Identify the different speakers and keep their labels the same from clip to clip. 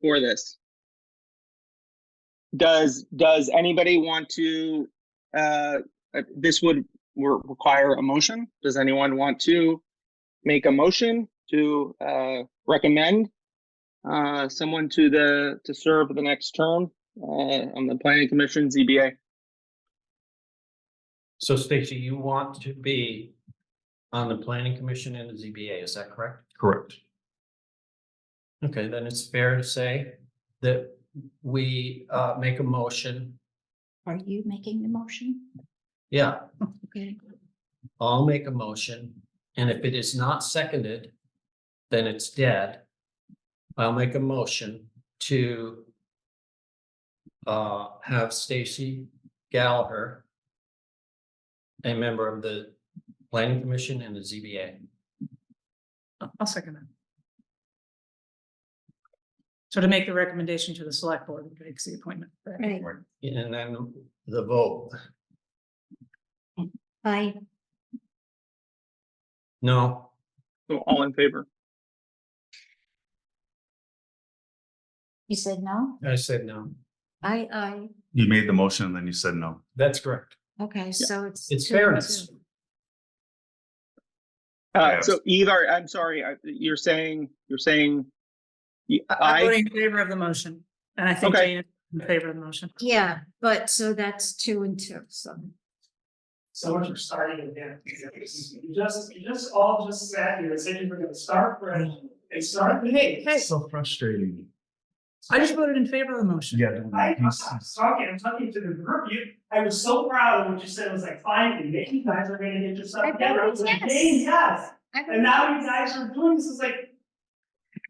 Speaker 1: for this. Does, does anybody want to, uh, uh, this would re- require a motion? Does anyone want to make a motion to, uh, recommend, uh, someone to the, to serve the next term, uh, on the planning commission, ZBA?
Speaker 2: So Stacy, you want to be on the planning commission and the ZBA, is that correct?
Speaker 3: Correct.
Speaker 2: Okay, then it's fair to say that we uh make a motion.
Speaker 4: Are you making the motion?
Speaker 2: Yeah,
Speaker 4: Okay.
Speaker 2: I'll make a motion, and if it is not seconded, then it's dead. I'll make a motion to uh have Stacy Gallagher a member of the planning commission and the ZBA.
Speaker 5: Oh, I'll second that. So to make the recommendation to the select board, who makes the appointment.
Speaker 4: Right.
Speaker 2: And then the vote,
Speaker 4: I,
Speaker 2: no,
Speaker 1: So all in favor?
Speaker 4: you said no?
Speaker 2: I said no.
Speaker 4: I, I,
Speaker 3: You made the motion and then you said no.
Speaker 2: That's correct.
Speaker 4: okay, so it's.
Speaker 2: It's
Speaker 4: two and
Speaker 2: fairness.
Speaker 4: two.
Speaker 1: Uh,
Speaker 3: Yes.
Speaker 1: so either, I'm sorry, I- you're saying, you're saying. y-
Speaker 5: I'm
Speaker 1: I,
Speaker 5: voting in favor of the motion, and I think
Speaker 1: Okay.
Speaker 5: Jane is in favor of the motion.
Speaker 4: Yeah, but so that's two and two, so.
Speaker 6: So much for starting again. You just, you just all just sat here and said you were gonna start fresh and start.
Speaker 5: Hey, hey.
Speaker 3: So frustrating.
Speaker 5: I just voted in favor of the motion.
Speaker 6: I was talking, I'm talking to the group. You, I was so proud of what you said. I was like, finally, maybe you guys are gonna get yourself
Speaker 4: I
Speaker 6: together. I
Speaker 4: voted
Speaker 6: was like,
Speaker 4: yes.
Speaker 6: "Yay, yes.
Speaker 4: I
Speaker 6: And
Speaker 4: don't-
Speaker 6: now you guys are doing this. It's like,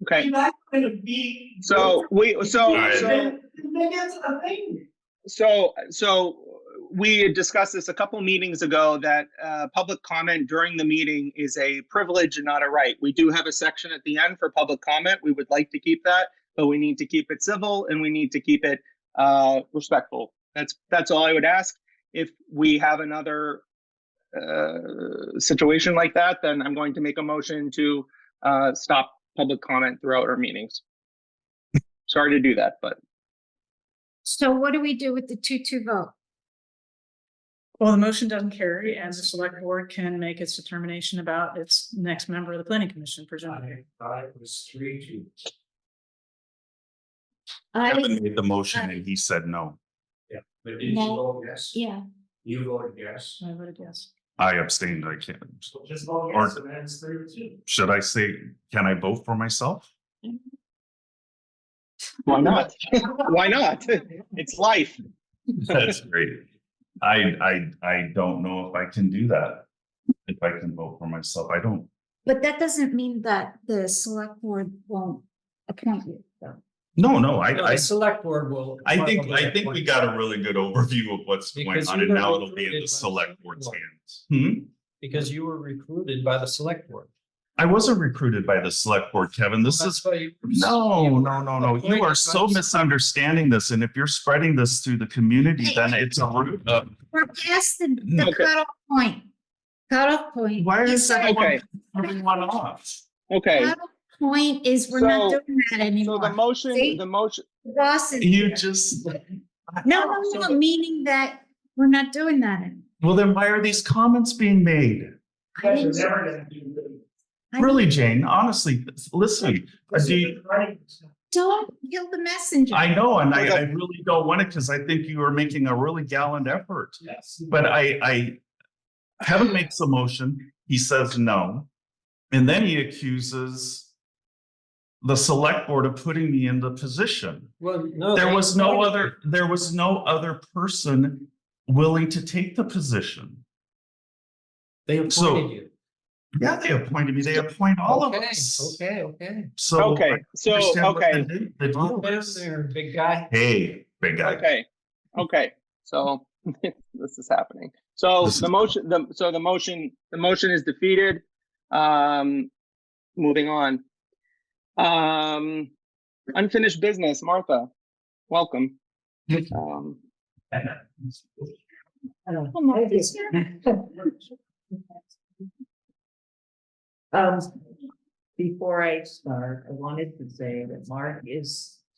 Speaker 1: okay,
Speaker 6: you guys are gonna be.
Speaker 1: so we, so,
Speaker 3: Alright.
Speaker 1: so,
Speaker 6: Then- then that's a thing.
Speaker 1: so, so we had discussed this a couple meetings ago that uh, public comment during the meeting is a privilege and not a right. We do have a section at the end for public comment. We would like to keep that, but we need to keep it civil and we need to keep it uh, respectful. That's, that's all I would ask. If we have another uh, situation like that, then I'm going to make a motion to uh, stop public comment throughout our meetings. Sorry to do that, but
Speaker 4: So what do we do with the two, two vote?
Speaker 5: Well, the motion doesn't carry, and the select board can make its determination about its next member of the planning commission, presumably.
Speaker 6: thought it was three two.
Speaker 4: I,
Speaker 3: Kevin made the motion and he said no.
Speaker 6: But
Speaker 4: did you No.
Speaker 6: vote yes?
Speaker 4: yeah,
Speaker 6: You voted yes.
Speaker 5: I voted yes.
Speaker 3: I abstained. I can't.
Speaker 6: Just vote yes and then it's three to two.
Speaker 3: Should I say, can I vote for myself?
Speaker 1: why not? Why not? It's life.
Speaker 3: That's great. I, I, I don't know if I can do that. If I can vote for myself, I don't.
Speaker 4: but that doesn't mean that the select board won't appoint you.
Speaker 3: No, no, I, I,
Speaker 2: The select board will.
Speaker 3: I think, I think we got a really good overview of what's going
Speaker 2: Because
Speaker 3: on
Speaker 2: you
Speaker 3: and
Speaker 2: got
Speaker 3: now it'll be
Speaker 2: recruited
Speaker 3: in
Speaker 2: by
Speaker 3: the
Speaker 2: the
Speaker 3: select
Speaker 2: select
Speaker 3: board's
Speaker 2: board.
Speaker 3: hands. Hmm?
Speaker 2: Because you were recruited by the select board.
Speaker 3: I wasn't recruited by the select board, Kevin. This is
Speaker 2: That's why you-
Speaker 3: No,
Speaker 2: you
Speaker 3: no, no, no.
Speaker 2: appointed
Speaker 3: You
Speaker 2: by
Speaker 3: are so
Speaker 2: the-
Speaker 3: misunderstanding this. And if you're spreading this through the community,
Speaker 4: Hey.
Speaker 3: then it's a root of.
Speaker 4: We're past the, the
Speaker 1: Okay.
Speaker 4: cutoff point. Cutoff point.
Speaker 3: Why
Speaker 4: is
Speaker 3: is
Speaker 1: Okay.
Speaker 3: everyone, everyone off?
Speaker 1: Okay,
Speaker 4: Cutoff point is we're not
Speaker 1: So-
Speaker 4: doing
Speaker 1: so
Speaker 4: that
Speaker 1: the
Speaker 4: anymore.
Speaker 1: motion,
Speaker 4: See?
Speaker 1: the motion,
Speaker 4: Ross is.
Speaker 3: You just,
Speaker 4: No, no, no, meaning that we're not doing that anymore.
Speaker 3: well, then why are these comments being made?
Speaker 4: I
Speaker 6: Guys are
Speaker 4: didn't-
Speaker 6: never gonna do it.
Speaker 4: I
Speaker 3: Really, Jane, honestly, listen, I
Speaker 6: This
Speaker 3: do-
Speaker 6: is running.
Speaker 4: Don't kill the messenger.
Speaker 3: I know, and I, I really don't want it because I think you are making a really gallant effort.
Speaker 6: Yes.
Speaker 3: But I, I, Kevin makes a motion, he says no. And then he accuses the select board of putting me in the position.
Speaker 2: Well, no.
Speaker 3: There
Speaker 2: they
Speaker 3: was no
Speaker 2: appointed
Speaker 3: other, there was no other person willing to take the position.
Speaker 2: you. They
Speaker 3: so-
Speaker 2: appointed you.
Speaker 3: Yeah, they appointed me, they appoint all of
Speaker 2: Okay,
Speaker 3: us.
Speaker 2: Okay, okay.
Speaker 3: So.
Speaker 1: okay, so,
Speaker 3: I understand what
Speaker 1: okay,
Speaker 3: the- the
Speaker 2: Come on
Speaker 3: deal
Speaker 2: down
Speaker 3: is.
Speaker 2: there, big guy.
Speaker 3: Hey, big guy,
Speaker 1: okay, okay, so this is happening. So
Speaker 3: This
Speaker 1: the
Speaker 3: is-
Speaker 1: motion, the, so the motion, the motion is defeated. Um, moving on. Um, unfinished business, Martha, welcome. Um,
Speaker 4: I'm not this-
Speaker 7: Um, before I start, I wanted to say that Mark is